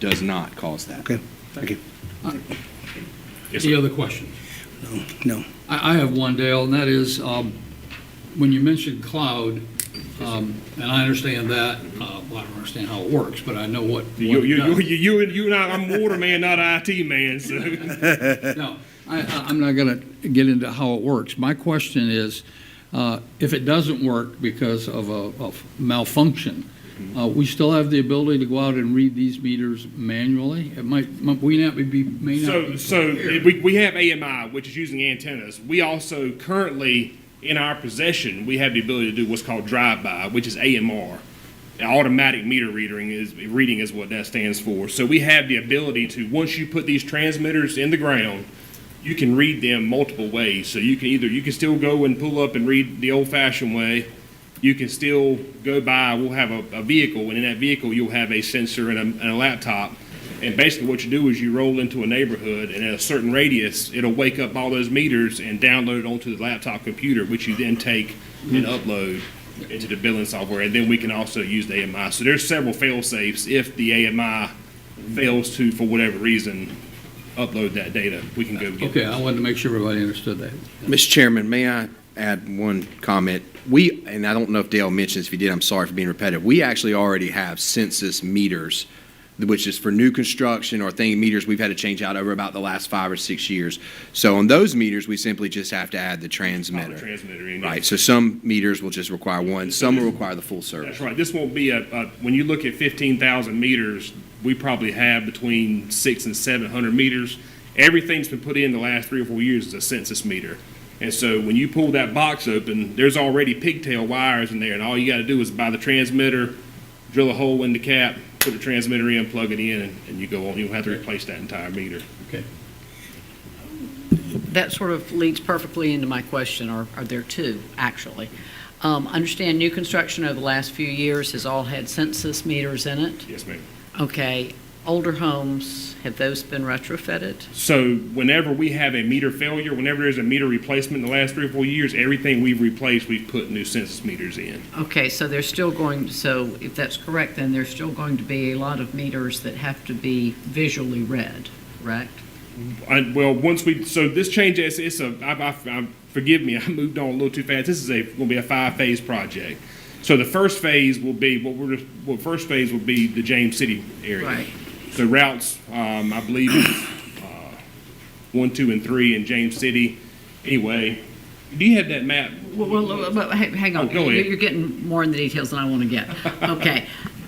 does not cause that. Okay, thank you. Any other questions? No, no. I, I have one, Dale, and that is, um, when you mentioned cloud, um, and I understand that, uh, well, I don't understand how it works, but I know what. You, what it you, you, does. you, you, and- you and I, I'm water man, not IT man, so. No, I, I- I'm not going to get into how it works. My question is, uh, if it doesn't work because of a of malfunction, uh, we still have the ability to go out and read these meters manually? It might, might- we not be, may not So, be. so we, we have AMI, which is using antennas. We also currently, in our possession, we have the ability to do what's called drive-by, which is AMR. An Automatic meter reading is, reading is what that stands for. So we have the ability to, once you put these transmitters in the ground, you can read them multiple ways. So you can either, you can still go and pull up and read the old-fashioned way. You can still go by, we'll have a, a vehicle, and in that vehicle, you'll have a sensor and a, and a laptop. And basically what you do is you roll into a neighborhood and at a certain radius, it'll wake up all those meters and download it onto the laptop computer, which you then take and upload into the billing software. And then we can also use the AMI. So there's several fail safes if the AMI fails to, for whatever reason, upload that data, we can go get. Okay, I wanted to make sure everybody understood that. Mr. Chairman, may I add one comment? We, and I don't know if Dale mentioned this, if he did, I'm sorry for being repetitive. We actually already have census meters, which is for new construction or thing meters we've had to change out over about the last five or six years. So on those meters, we simply just have to add the Oh, the transmitter. Transmitter. in. Right, so some meters will just require one, some will require the full service. That's right. This won't be a, a, when you look at fifteen thousand meters, we probably have between six and seven hundred meters. Everything's been put in the last three or four years is a census meter. And so when you pull that box open, there's already pigtail wires in there and all you gotta do is buy the transmitter, drill a hole in the cap, put the transmitter in, plug it in, and, and you go on. You don't have to replace that entire meter. Okay. That sort of leads perfectly into my question, or are there two, actually? Um, I Understand new construction over the last few years has all had census meters in it. Yes, ma'am. Okay, older homes, have those been retrofitted? So whenever we have a meter failure, whenever there's a meter replacement in the last three or four years, everything we've replaced, we've put new census meters in. Okay, so they're still going, so if that's correct, then there's still going to be a lot of meters that have to be visually read, correct? I, well, once we, so this change is, it's a, I, I, I, forgive me, I moved on a little too fast. This is a, gonna be a five-phase project. So the first phase will be, what we're, well, first phase will be the James City area. Right. So routes, um, I believe, it's, uh, one, two, and three in James City. Anyway, do you have that map? Well, Well, but ha- hang on, Oh, go ahead. you're getting more in the details than I want to get. Okay,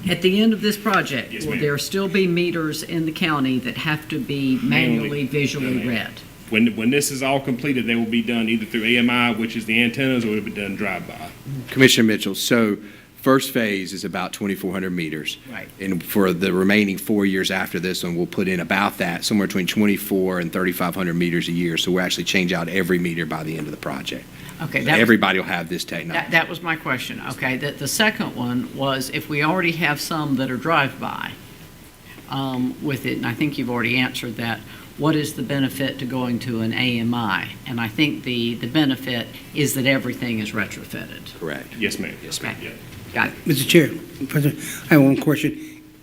at the end of this project, Yes, will ma'am. there still be meters in the county that have to be Manually. manually No, visually ma'am. read? When, when this is all completed, they will be done either through AMI, which is the antennas, or it'll be done drive-by. Commissioner Mitchell, so first phase is about 2,400 meters. Right. And for the remaining four years after this one, we'll put in about that, somewhere between 24 and 3,500 meters a year. So we'll actually change out every meter by the end of the project. Okay, that, Everybody will have this that, technology. that was my question, okay? The, the second one was if we already have some that are drive-by um, with it, and I think you've already answered that, what is the benefit to going to an AMI? And I think the, the benefit is that everything is retrofitted. Correct. Yes, ma'am. Yes, ma'am. Yeah. Got it? Mr. Chair, President, I have one question.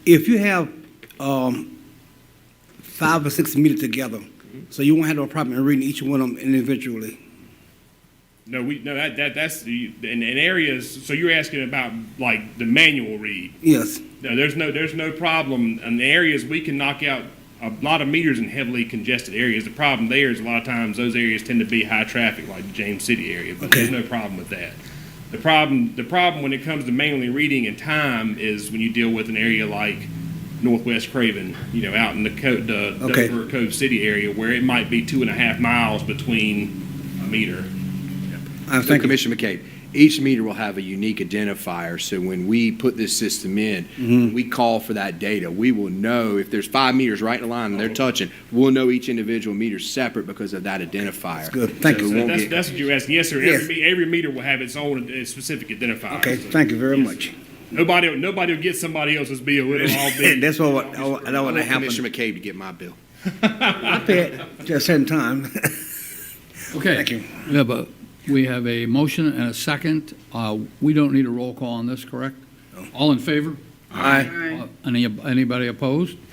If you have um, five or six meters together, so you won't have no problem in reading each one of them individually? No, we, no, that, that, that's, the- in, in areas, so you're asking about like the manual read. Yes, No, there's no, there's no problem. In the areas, we can knock out a lot of meters in heavily congested areas. The problem there is a lot of times those areas tend to be high traffic, like the James City area, but there's no problem with that. The problem, the problem when it comes to manually reading and time is when you deal with an area like Northwest Craven, you know, out in the Co- the Okay. Dover Cove City area where it might be two and a half miles between a meter. I So Uh, thank you. Commissioner McCabe, each meter will have a unique identifier, so when we put this system Mm-hmm. in, we call for that data. We will know if there's five meters right in a line and they're touching, we'll know each individual meter separate because of that identifier. good. Thank So you. it won't That's, get- that's what you're asking. Yes, sir. Yes. Every, me- every meter will have its own uh, specific identifier. Okay, So thank you very much. Nobody, nobody will get somebody else's bill. It'll all be. That's what, I want- I don't I want to want happen. Commissioner McCabe to get my bill. I pay it at a certain time. Okay. Thank you. We have a, we have a motion and a second. Uh, We don't need a roll call on this, correct? All in favor? Aye. Uh, Any, anybody opposed?